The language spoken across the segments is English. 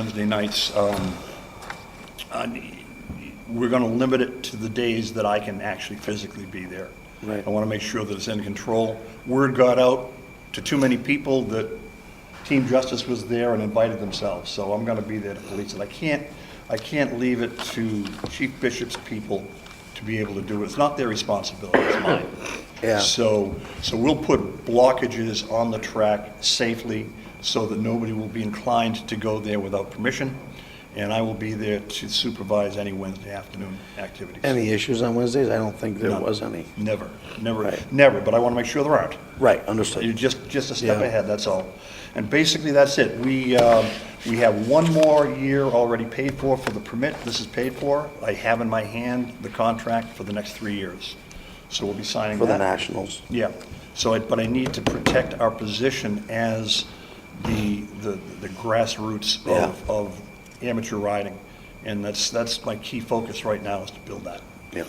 Wednesday nights, um, I- we're going to limit it to the days that I can actually physically be there. Right. I want to make sure that it's in control. Word got out to too many people that Team Justice was there and invited themselves, so I'm going to be there to police it. I can't, I can't leave it to Chief Bishop's people to be able to do it. It's not their responsibility, it's mine. Yeah. So, so we'll put blockages on the track safely so that nobody will be inclined to go there without permission. And I will be there to supervise any Wednesday afternoon activities. Any issues on Wednesdays? I don't think there None. was any. Never, never, Right. never, but I want to make sure there aren't. Right, You're understood. just, just a step Yeah. ahead, that's all. And basically, that's it. We, um, we have one more year already paid for for the permit. This is paid for. I have in my hand the contract for the next three years. So we'll be signing For that. the Nationals. Yeah, so, I- but I need to protect our position as the, the the grassroots of, Yeah. of amateur riding. And that's, that's my key focus right now is to build that. Yep.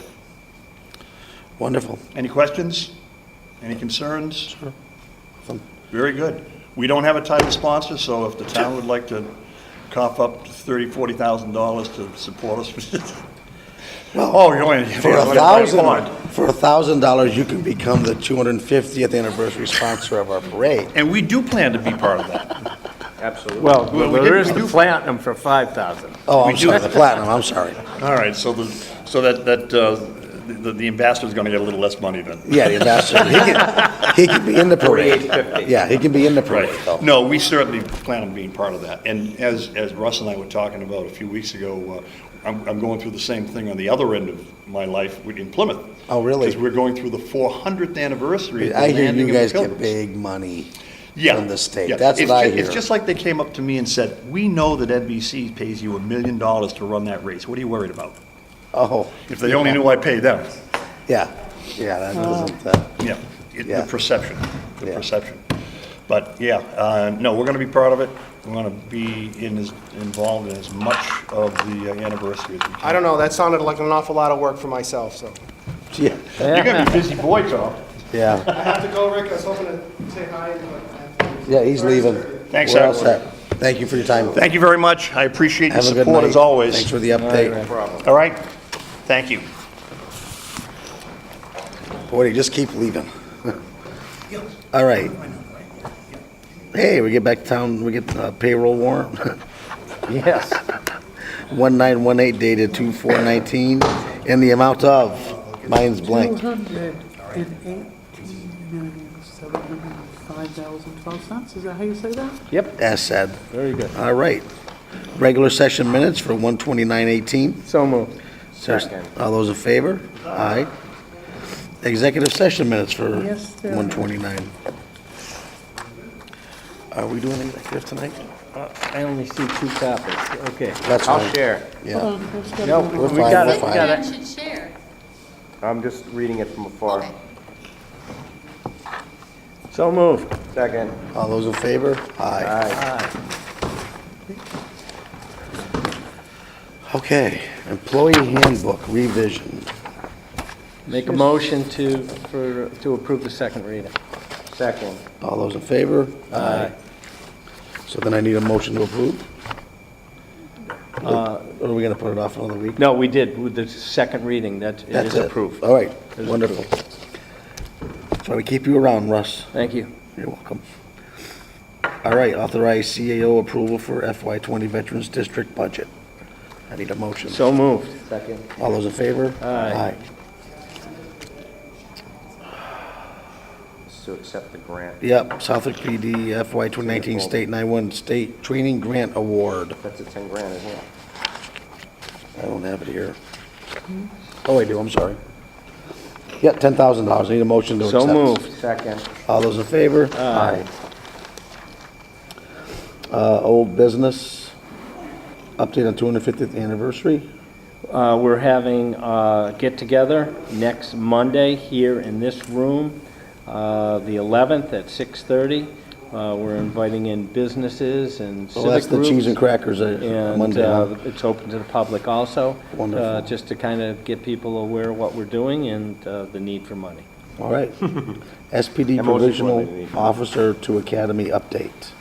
Wonderful. Any questions? Any concerns? Awesome. Very good. We don't have a title sponsor, so if the town would like to cough up thirty, forty thousand dollars to support us. Oh, you're only. For a you're only playing thousand, bond. for a thousand dollars, you can become the 250th anniversary sponsor of our parade. And we do plan to be part of that. Absolutely. Well, Well, we there did- is we the do- platinum for 5,000. Oh, We I'm do. sorry, the platinum, I'm sorry. All right, so the, so that, that, uh, the, the ambassador's gonna get a little less money then. Yeah, the ambassador, he can, he can be in the parade. 48.50. Yeah, he can be in the Right. parade, though. No, we certainly plan on being part of that. And as, as Russ and I were talking about a few weeks ago, uh, I'm, I'm going through the same thing on the other end of my life in Plymouth. Oh, really? Because we're going through the 400th anniversary of the I hear landing of you the guys get Pilgrims. big money Yeah, from the yeah. state. That's It's what I ju- hear. It's just like they came up to me and said, "We know that NBC pays you a million dollars to run that race. What are you worried about?" Oh, If they only knew I paid them. yeah, yeah, that doesn't, uh, Yeah, it- the Yeah. perception, the Yeah. perception. But, yeah, uh, no, we're going to be proud of it. We're going to be in as, involved in as much of the uh, anniversary as we can. I don't know, that sounded like an awful lot of work for myself, so. yeah, You're going to be a busy boy, Tom. yeah. I have to go, Rick, I was hoping to say hi, but I have to. Yeah, he's leaving. Thanks, We're all everyone. set. Thank you for your time. Thank you very much. I appreciate your Have a good support as night. always. Thanks for the update. All right? Thank you. Boy, they just keep leaving. All right. Hey, we get back to town, we get uh, payroll warrant, Yes. 1918 dated 2419, in the amount of, mine's blank, $218,705.12. Is that how you say that? Yep, as said. very good. All right. Regular session minutes for 12918. So moved. Second. All those in favor? Aye. Executive session minutes for Yes, there are. 129. Are we doing executive tonight? Uh, I only see two copies, okay. That's I'll fine. share. Yeah. Um, let's go to No, the- we We're fine, got we're it, we got fine. it. should share. I'm just reading it from afar. Okay. So moved. Second. All those in favor? Aye. Uh, Aye. Okay, employee handbook revision. Make a motion to, for, to approve the second reading. Second. All those in favor? Aye. So then I need a motion to approve? Or are we going to put it off another week? No, we did, with the second reading, that it That's is it. Oh. approved. All right, is wonderful. That's why we keep you around, Russ. Thank you. You're welcome. All right, authorize CAO approval for FY20 Veterans District budget. I need a motion. So moved. Second. All those in favor? Aye. To accept the grant. Yep, Southwick PD FY 2019 State 91 State Training Grant Award. That's a 10 grand as well. I don't have it here. Oh, I do, I'm sorry. Yeah, $10,000, I need a motion to accept. So moved. Second. All those in favor? Aye. Uh, Old business, update on 250th anniversary. Uh, We're having a get-together next Monday here in this room, uh, the 11th at 6:30. Uh, We're inviting in businesses and Well, that's civic the groups. cheese and crackers uh, And Monday, huh? uh, it's open to the public also. Wonderful. uh, Just to kind of get people aware of what we're doing and uh, the need for money. All right. SPD And most Provisional importantly, Officer to Academy update.